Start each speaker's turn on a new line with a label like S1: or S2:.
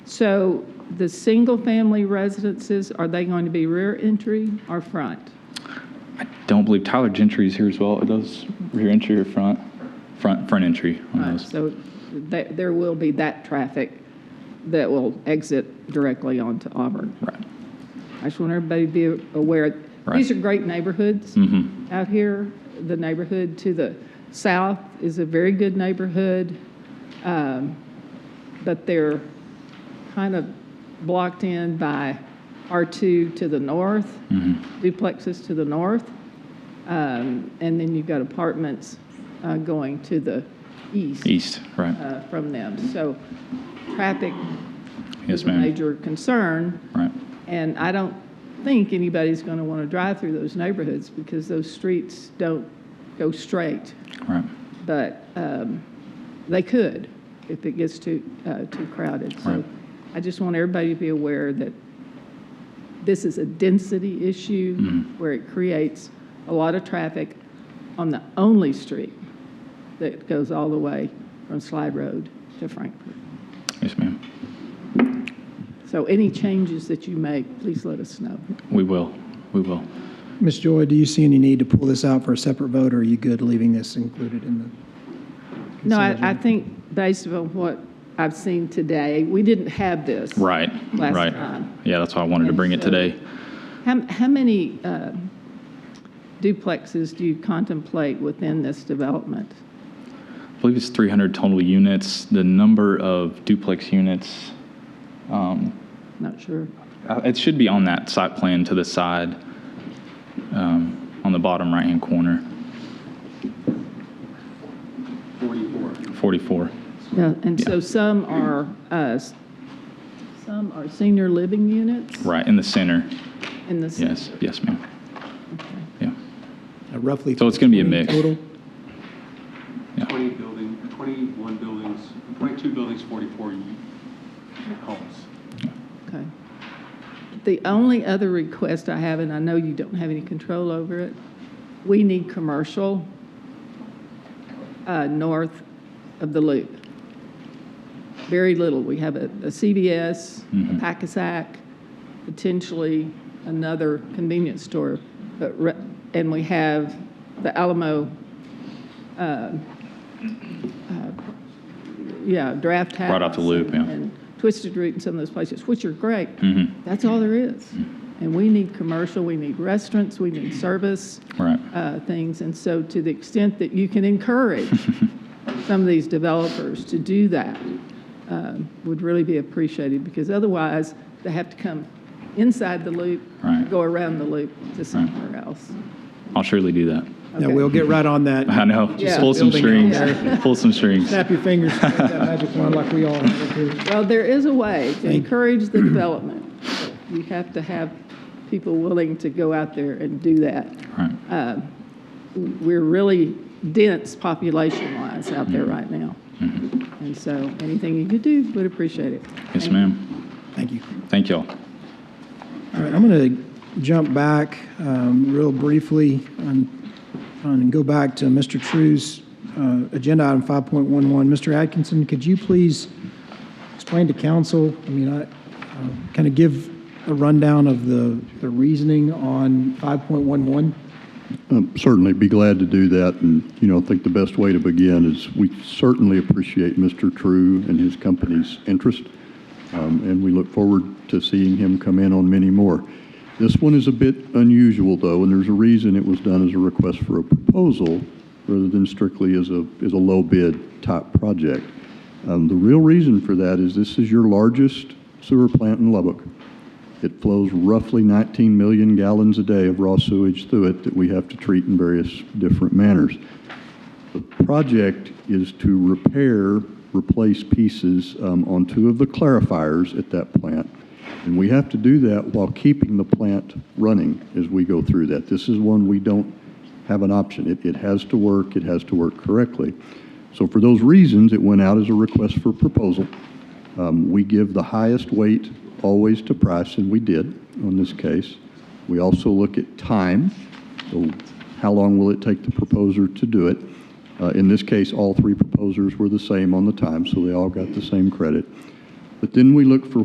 S1: So the single-family residences, are they going to be rear entry or front?
S2: I don't believe Tyler Gentry is here as well. Are those rear entry or front? Front, front entry on
S1: Right,
S2: those.
S1: So there, there will be that traffic that will exit directly onto Auburn.
S2: Right.
S1: I just want everybody to be aware,
S2: Right. Mm-hmm.
S1: these are great neighborhoods out here. The neighborhood to the south is a very good neighborhood, um, but they're kind of blocked in by R2 to the north,
S2: Mm-hmm.
S1: duplexes to the north, um, and then you've got apartments uh, going to the east
S2: East, right.
S1: uh, from them. So traffic
S2: Yes,
S1: is a
S2: ma'am.
S1: major concern.
S2: Right.
S1: And I don't think anybody's going to want to drive through those neighborhoods because those streets don't go straight.
S2: Right.
S1: But um, they could if it gets too, uh, too crowded. So
S2: Right.
S1: I just want everybody to be aware that this is a density issue
S2: Mm-hmm.
S1: where it creates a lot of traffic on the only street that goes all the way from Slide Road to Frankfurt.
S2: Yes, ma'am.
S1: So any changes that you make, please let us know.
S2: We will. We will.
S3: Ms. Joy, do you see any need to pull this out for a separate vote, or are you good leaving this included in the?
S1: No,
S3: consent
S1: I, I
S3: agenda?
S1: think based on what I've seen today, we didn't have this.
S2: Right.
S1: Last
S2: right.
S1: time.
S2: Yeah, that's why I wanted to
S1: And
S2: bring it
S1: so-
S2: today.
S1: How, how many um, duplexes do you contemplate within this development?
S2: I believe it's 300 total units. The number of duplex units, um,
S1: Not sure.
S2: uh, it should be on that site plan to the side, um, on the bottom right hand corner. 44. 44.
S1: Yeah, And so some are, uh, s- some are senior living units
S2: Right, in the center.
S1: in the. city.
S2: Yes, yes, ma'am. Yeah,
S3: Uh, Roughly.
S2: So it's gonna be a
S3: 20
S2: mix.
S3: Total?
S4: 20 building, 21 buildings, 22 buildings, 44 u- homes.
S1: Okay. The only other request I have, and I know you don't have any control over it, we need commercial uh, north of the loop. Very little. We have a a CVS,
S2: Mm-hmm.
S1: a Pack-a-Sack, potentially another convenience store. but re- And we have the Alamo, uh, uh, yeah, Draft House.
S2: Right off the Loop, yeah.
S1: And Twisted Root and some of those places, which are great.
S2: Mhm.
S1: That's all there is.
S2: Mm-hmm.
S1: And we need commercial, we need restaurants, we need service
S2: right,
S1: uh, things. And so to the extent that you can encourage some of these developers to do that um, would really be appreciated because otherwise they have to come inside the loop,
S2: Right.
S1: go around the loop to somewhere else.
S2: I'll surely do that.
S3: Yeah,
S1: Okay.
S3: we'll get right on that.
S2: I know,
S1: Yeah.
S2: pull some
S3: Building
S2: strings,
S3: out
S2: pull some strings.
S3: Snap your fingers, make that magic wand like we all have to.
S1: Well, there is a way to
S3: you.
S1: encourage the development. You have to have people willing to go out there and do that.
S2: Right,
S1: we're really dense population-wise out there right now. And so anything you could do, would appreciate it.
S2: yes, ma'am.
S3: Thank you.
S2: Thank y'all.
S3: All right, I'm going to jump back um, real briefly and, and go back to Mr. True's uh, agenda item 5.11. Mr. Atkinson, could you please explain to council, I mean, I kind of give a rundown of the, the reasoning on 5.11?
S5: Um, Certainly be glad to do that, and, you know, I think the best way to begin is we certainly appreciate Mr. True and his company's interest, um, and we look forward to seeing him come in on many more. This one is a bit unusual, though, and there's a reason it was done as a request for a proposal rather than strictly as a, as a low-bid type project. Um, The real reason for that is this is your largest sewer plant in Lubbock. It flows roughly 19 million gallons a day of raw sewage through it that we have to treat in various different manners. The project is to repair, replace pieces um, on two of the clarifiers at that plant. And we have to do that while keeping the plant running as we go through that. This is one we don't have an option. It, it has to work, it has to work correctly. So for those reasons, it went out as a request for proposal. Um, We give the highest weight always to price, and we did on this case. We also look at time, so how long will it take the proposer to do it? Uh, In this case, all three proposers were the same on the time, so they all got the same credit. But then we look for